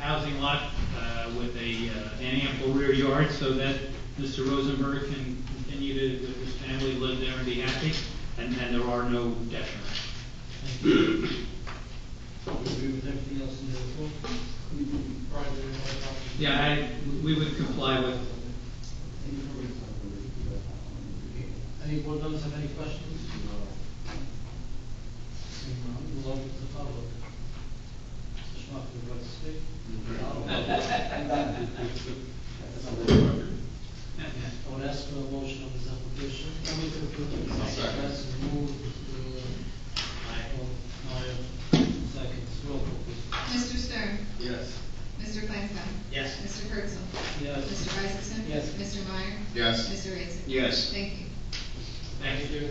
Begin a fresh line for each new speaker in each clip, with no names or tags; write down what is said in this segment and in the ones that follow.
housing lot uh, with a, uh, an ample rear yard so that Mr. Rosenberg can continue to, with his family, live there and be happy, and, and there are no detriments.
agree with everything else in the report? Brian, do you want to comment?
Yeah, I, we would comply with,
Any board members have any questions? Seeing none, we'll open to the public. Mr. Schmuck, would you like to speak? I would ask for a motion on this application. Can we approve it?
Second.
That's moved, uh, Michael, Meyer, seconds, roll call please.
Mr. Stern?
Yes.
Mr. Flansbrough?
Yes.
Mr. Herzl?
Yes.
Mr. Isaacson?
Yes.
Mr. Meyer?
Yes.
Mr. Raisin?
Yes.
Thank you.
thank you.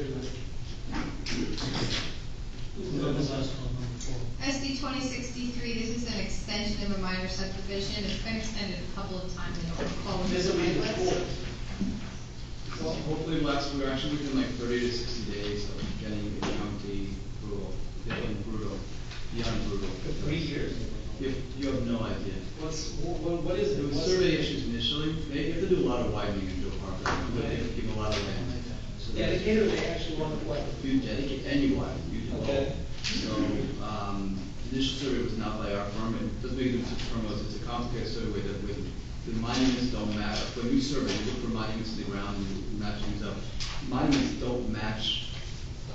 We'll go to the last one, number four.
SD twenty sixty-three, this is an extension of a minor subdivision, it's been extended a couple of times, I don't recall. when
This will be
it was.
before. So hopefully last, we're actually within like thirty to sixty days of getting the county brutal, the brutal, beyond brutal.
years.
You, you have no idea.
What's, what, what is
There was survey issues initially, they have to do a lot of widening in Joe Park, but they have to give a lot of land. So they-
Dedicated, they actually want to what?
You dedicate anyone, you can
Okay.
So, um, initial survey was not by our firm, and doesn't make them firm, it's a complicated survey that with, the monuments don't match, when you survey, you look for monuments in the ground, you match things up. Monuments don't match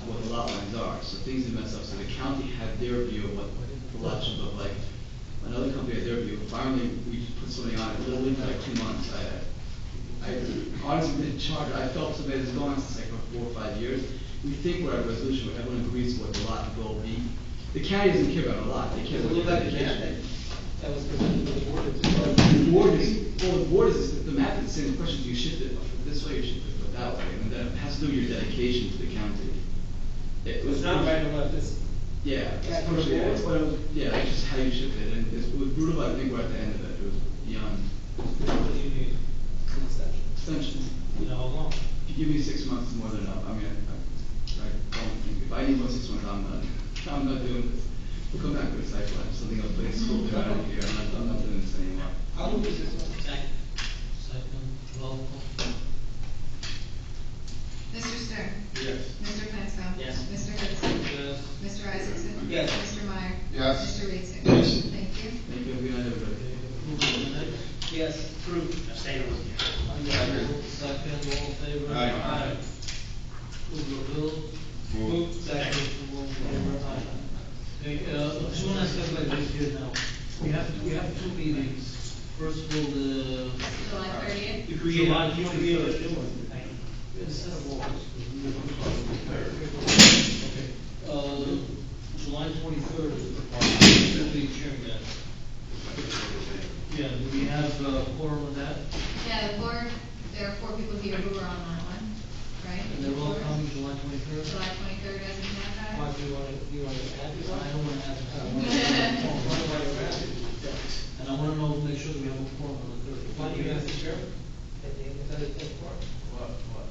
what the lot lines are, so things are messed up, so the county had their view of what the lot should look like. Another company had their view, finally, we put something on it, literally for like two months, I, I honestly been charged, I felt somebody that's gone on since like for four or five years. We think we're at a resolution where everyone agrees what the lot will be. The county doesn't care about a lot, they care about the dedication.
That was presented to the board.
The board is, well, the board is, the map is saying the question, you shift it this way, you shift it that way, and that has to do with your dedication to the county. It was not
right or left, it's.
Yeah, it's partially, it's, but it was, yeah, it's just how you shift it, and it's- it was brutal, but I think we're at the end of it, it was beyond
What do you need?
extensions.
You know, how long?
If you give me six months, it's more than enough. I mean, I, I I don't think, if I need more six months, I'm not, I'm not doing this. We'll come back with a cycle, I have something else, but it's school, I don't care, I'm not, I'm not doing this anymore.
How long is this one? Second. Second, roll call.
Mr. Stern?
Yes.
Mr. Flansbrough?
Yes.
Mr. Herzl?
Yes.
Mr. Isaacson?
Yes.
Mr. Meyer?
Yes.
Mr. Raisin?
Yes.
Thank you.
Thank you, have a good night, everybody.
Yes, approved. Unanimous. Second, all in favor?
Aye.
Approval of bill. Move. Second, all in favor? Aye. Okay, uh, just wanna ask everybody who's here now. We have, we have two meetings. First of all, the.
July thirtieth?
You create-
July, you want to be a new one? Instead of August. we will do- Okay. Uh, July twenty-third is the party, will be chairing that. Yeah, do we have uh, quorum of that?
Yeah, the board, there are four people here who were on that one, right?
And they're all coming July twenty-third?
July twenty-third, as we have that.
Mark, you want to, you want to add this? I don't want to add it. And I want to know, make sure that we have a forum on the third.
Why do you ask the
chair?
What, what?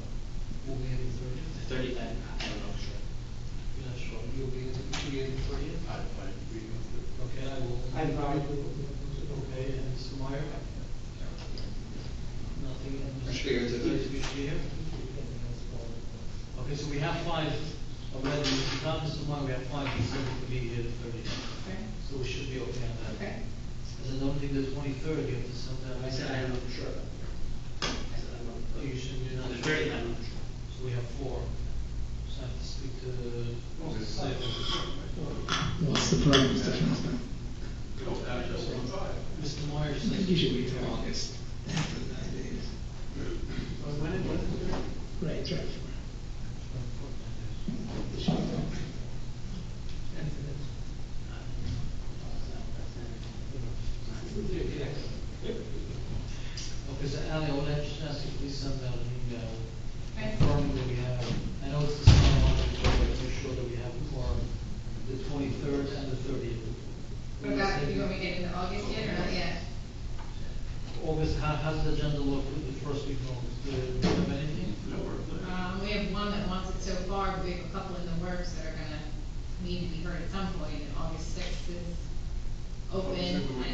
Will be in the third.
Thirty, I, I don't know for sure.
You're not sure, you'll be in, you'll be in the third?
I, I agree with
Okay, I will.
I'm sorry.
Okay, and Mr. Meyer? Nothing. and Mr.
Sure, it's okay.
Mr. Sheehan? Okay, so we have five already, not Mr. Meyer, we have five, people to be here the thirty.
Okay.
So we should be okay on that.
Okay.
Because I don't think the twenty-third, you have to send that.
I said I don't know for sure. I said I don't know.
Oh, you shouldn't do
On the
that.
thirty, I don't know for sure.
So we have four. So I have to speak to the site.
What's the problem, Mr. Flansman?
Mr. Meyer
I think you
says.
should wait till August, after that is, right, right.
Okay, so Ali, I would just ask you, please send out an email.
Okay.
Confirming that we have, I know it's the summer month, but make sure that we have for the twenty-third and the thirtieth.
What about, you want me to get into August yet or not yet?
August, how, how's the agenda look for the first week of August? Do you have anything?
Um, we have one that wants it so far, but we have a couple in the works that are gonna need to be heard at some point, and August sixth is open.